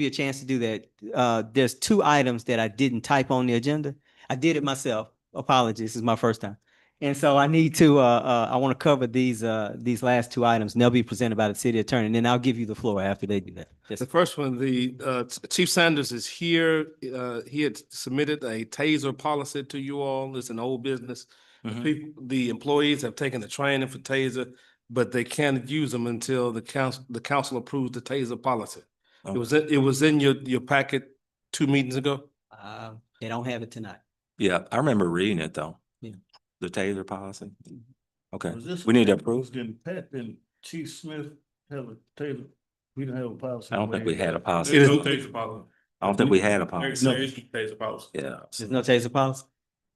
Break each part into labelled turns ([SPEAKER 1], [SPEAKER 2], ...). [SPEAKER 1] you a chance to do that. Uh, there's two items that I didn't type on the agenda. I did it myself. Apologies, this is my first time. And so I need to, uh, uh, I want to cover these, uh, these last two items. and They'll be presented by the city attorney, and then I'll give you the floor after they do that. Yes,
[SPEAKER 2] The first one, the uh, Ch- Chief Sanders is here. Uh, He had submitted a taser policy to you all. It's an old business. The
[SPEAKER 3] Mhm.
[SPEAKER 2] peop- The employees have taken the training for taser, but they can't use them until the council, the council approves the taser policy. It
[SPEAKER 3] Okay.
[SPEAKER 2] was, in- it was in your, your packet two meetings ago.
[SPEAKER 1] uh, they don't have it tonight.
[SPEAKER 3] Yeah, I remember reading it though.
[SPEAKER 1] Yeah.
[SPEAKER 3] The Taylor policy. Okay,
[SPEAKER 4] Was this
[SPEAKER 3] we need to
[SPEAKER 4] a-
[SPEAKER 3] approve.
[SPEAKER 4] Didn't Pat and Chief Smith have a Taylor, we didn't have a policy.
[SPEAKER 3] I don't think we had a policy.
[SPEAKER 2] It is-
[SPEAKER 3] I don't think we had a policy.
[SPEAKER 4] No.
[SPEAKER 5] taser policy.
[SPEAKER 3] Yeah.
[SPEAKER 1] There's no taser policy?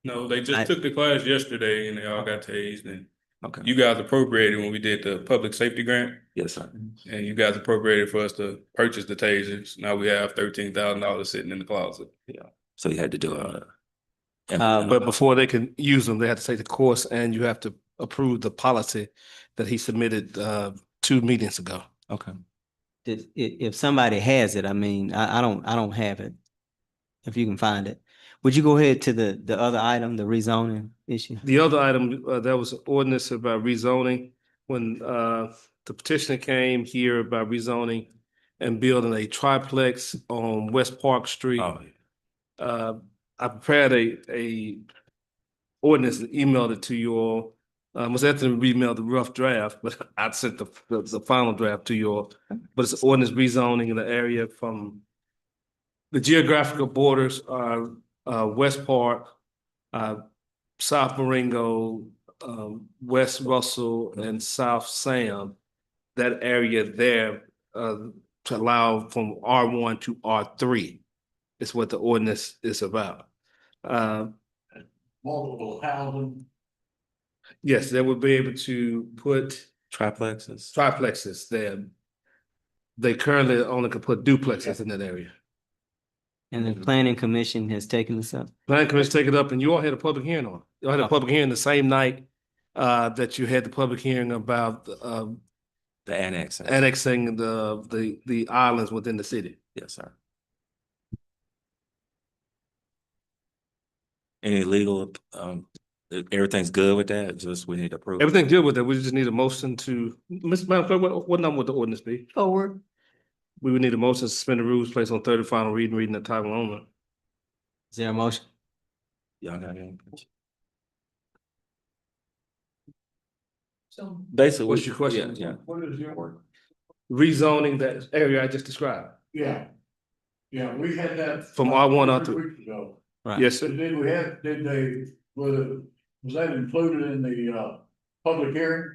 [SPEAKER 5] No, they
[SPEAKER 1] I-
[SPEAKER 5] just took the class yesterday and they all got tased and
[SPEAKER 3] Okay.
[SPEAKER 5] you guys appropriated when we did the public safety grant.
[SPEAKER 3] Yes, sir.
[SPEAKER 5] And you guys appropriated for us to purchase the tasers. Now we have thirteen thousand dollars sitting in the closet.
[SPEAKER 3] So you had to do a.
[SPEAKER 1] Uh,
[SPEAKER 2] But before they can use them, they have to take the course and you have to approve the policy that he submitted uh, two meetings ago.
[SPEAKER 3] Okay,
[SPEAKER 1] If, if, if somebody has it, I mean, I, I don't, I don't have it. If you can find it. Would you go ahead to the, the other item, the rezoning issue?
[SPEAKER 2] The other item, uh, that was an ordinance about rezoning, when, uh, the petitioner came here about rezoning and building a triplex on West Park Street.
[SPEAKER 3] oh,
[SPEAKER 2] Uh, I prepared a, a ordinance and emailed it to you all. Uh, Ms. Anthony emailed the rough draft, but I sent the, the, the final draft to you all. But it's ordinance rezoning in the area from the geographical borders are, uh, West Park, uh, South Marengo, um, West Russell and South Sam. That area there, uh, to allow from R one to R three is what the ordinance is about. Uh,
[SPEAKER 4] Multiple housing.
[SPEAKER 2] yes, they would be able to put
[SPEAKER 3] triplexes.
[SPEAKER 2] triplexes there. They currently only can put duplexes in that area.
[SPEAKER 1] And the planning commission has taken this up?
[SPEAKER 2] Planning commission take it up and you all had a public hearing on. it. You all had a
[SPEAKER 4] Uh-huh.
[SPEAKER 1] Oh.
[SPEAKER 2] public hearing the same night uh, that you had the public hearing about uh,
[SPEAKER 3] The annex.
[SPEAKER 2] annexing the, the, the islands within the city.
[SPEAKER 3] Yes, sir. Any legal, um, everything's good with that? Just we need to approve.
[SPEAKER 2] Everything good with that. We just need a motion to, Ms. Madam Clerk, what, what number would the ordinance be?
[SPEAKER 1] Forward.
[SPEAKER 2] We would need a motion to suspend the rules placed on third and final reading, reading the title only.
[SPEAKER 1] Is there a motion?
[SPEAKER 3] Y'all got any? Basically.
[SPEAKER 2] What's
[SPEAKER 3] we-
[SPEAKER 2] your question?
[SPEAKER 3] Yeah,
[SPEAKER 4] What is your?
[SPEAKER 2] Rezoning that area I just described.
[SPEAKER 4] Yeah. Yeah, we had that.
[SPEAKER 2] From R1 out
[SPEAKER 4] three
[SPEAKER 2] to-
[SPEAKER 4] weeks ago.
[SPEAKER 1] Right.
[SPEAKER 2] Yes, sir.
[SPEAKER 4] Did did we have, did they, was, was that included in the, uh, public hearing?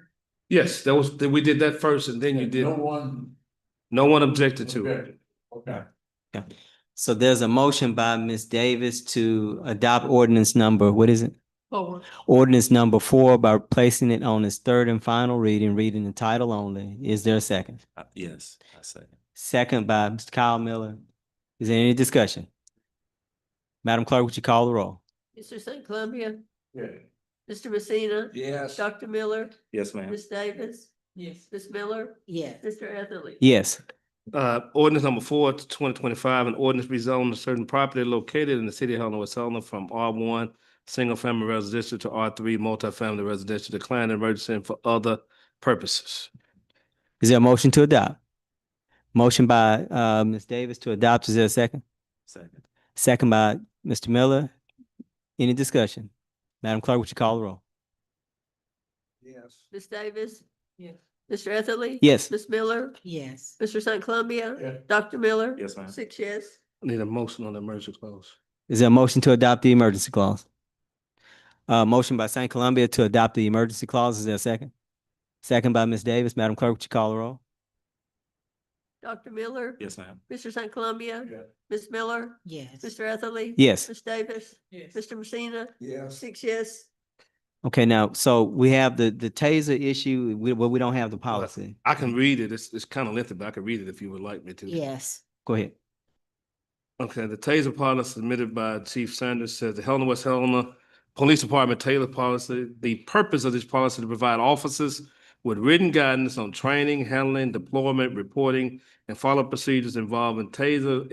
[SPEAKER 2] Yes, that was, that we did that first and then you did,
[SPEAKER 4] No one.
[SPEAKER 2] no one objected to it.
[SPEAKER 4] objected. Okay.
[SPEAKER 1] So there's a motion by Ms. Davis to adopt ordinance number, what is it? Ordinance number four by placing it on its third and final reading, reading the title only. Is there a second?
[SPEAKER 3] Uh, yes, I say.
[SPEAKER 1] Second by Mr. Kyle Miller. Is there any discussion? Madam Clerk, would you call the roll?
[SPEAKER 6] Mr. St. Columbia,
[SPEAKER 4] Yeah.
[SPEAKER 6] Mr. Messina,
[SPEAKER 3] Yes.
[SPEAKER 6] Dr. Miller,
[SPEAKER 3] Yes, ma'am.
[SPEAKER 6] Ms. Davis. Yes. Ms. Miller. Yes. Mr. Etherly.
[SPEAKER 1] Yes,
[SPEAKER 2] Uh, ordinance number four to twenty twenty-five, an ordinance rezoning a certain property located in the city of Helena, West Helena from R one, single-family residential to R three, multifamily residential, declaring emergency and for other purposes.
[SPEAKER 1] is there a motion to adopt? Motion by uh Ms. Davis to adopt, is there a second?
[SPEAKER 3] Second.
[SPEAKER 1] Second by Mr. Miller. Any discussion? Madam Clerk, would you call the roll?
[SPEAKER 4] Yes.
[SPEAKER 6] Ms. Davis. Yes. Mr. Etherly.
[SPEAKER 1] Yes.
[SPEAKER 6] Ms. Miller,
[SPEAKER 7] Yes.
[SPEAKER 6] Mr. St. Columbia,
[SPEAKER 4] Yeah.
[SPEAKER 6] Dr. Miller.
[SPEAKER 3] Yes, ma'am.
[SPEAKER 6] Six yes.
[SPEAKER 2] Need a motion on the emergency clause.
[SPEAKER 1] Is there a motion to adopt the emergency clause? Uh, motion by St. Columbia to adopt the emergency clause. Is there a second? Second by Ms. Davis. Madam Clerk, would you call the roll?
[SPEAKER 6] Dr. Miller.
[SPEAKER 3] Yes, ma'am.
[SPEAKER 6] Mr. St. Columbia,
[SPEAKER 4] Yeah.
[SPEAKER 6] Ms. Miller,
[SPEAKER 7] Yes.
[SPEAKER 6] Mr. Etherly.
[SPEAKER 1] Yes.
[SPEAKER 6] Ms. Davis. Yes. Mr. Messina,
[SPEAKER 4] Yes.
[SPEAKER 6] six yes.
[SPEAKER 1] Okay, now, so we have the, the taser issue, we, well, we don't have the policy.
[SPEAKER 2] I can read it. It's, it's kind of lengthy, but I can read it if you would like me to.
[SPEAKER 7] Yes.
[SPEAKER 1] Go ahead.
[SPEAKER 2] Okay, the taser policy submitted by Chief Sanders says the Helena, West Helena Police Department Taylor policy, the purpose of this policy to provide officers with written guidance on training, handling, deployment, reporting, and follow procedures involving TASER